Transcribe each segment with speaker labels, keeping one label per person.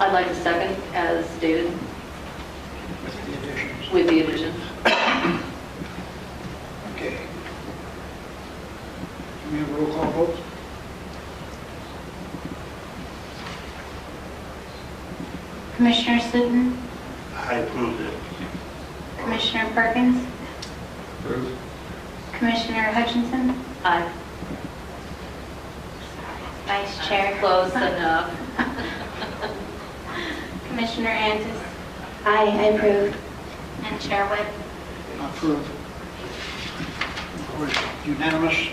Speaker 1: I'd like a second as stated
Speaker 2: with the additions.
Speaker 1: with the addition.
Speaker 2: Okay. Can we have a roll call vote?
Speaker 3: Commissioner Sutton,
Speaker 4: I approve it.
Speaker 3: Commissioner Perkins, Commissioner Hutchinson,
Speaker 1: Aye.
Speaker 3: Vice Chair.
Speaker 1: Close enough.
Speaker 3: Commissioner Antis
Speaker 5: Aye, I approve.
Speaker 3: and Chair Webb.
Speaker 2: Approved. Unanimous.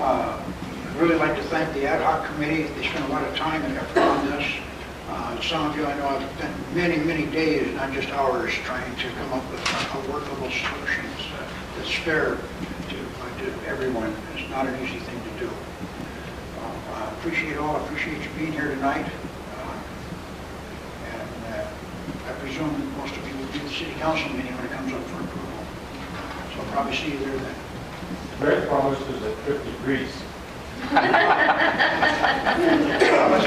Speaker 2: Uh, I'd Really like to thank the ad hoc committee. They spent a lot of time and effort on this. Uh, Some of you, I know, have spent many, many days, not just hours, trying to come up with a workable solution uh, that's fair to uh, to everyone. It's not an easy thing to do. Uh, I Appreciate all, appreciate you being here tonight. Uh, And uh, I presume that most of you will be at the city council meeting when it comes up for approval. So I'll probably see you there then.
Speaker 6: Greg promised us a trip to Greece.
Speaker 2: Let's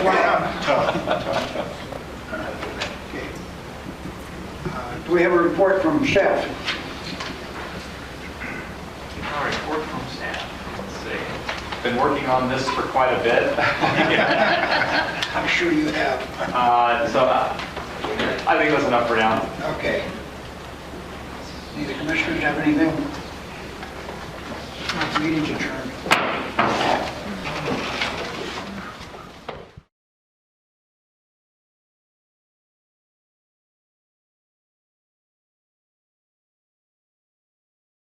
Speaker 2: wind up. Okay. Uh, Do we have a report from Seth?
Speaker 7: A report from staff. Let's see. Been working on this for quite a bit.
Speaker 2: I'm sure you have.
Speaker 7: Uh, So uh, I think that's enough for now.
Speaker 2: Okay. Do the commissioners have anything? Meeting's adjourned.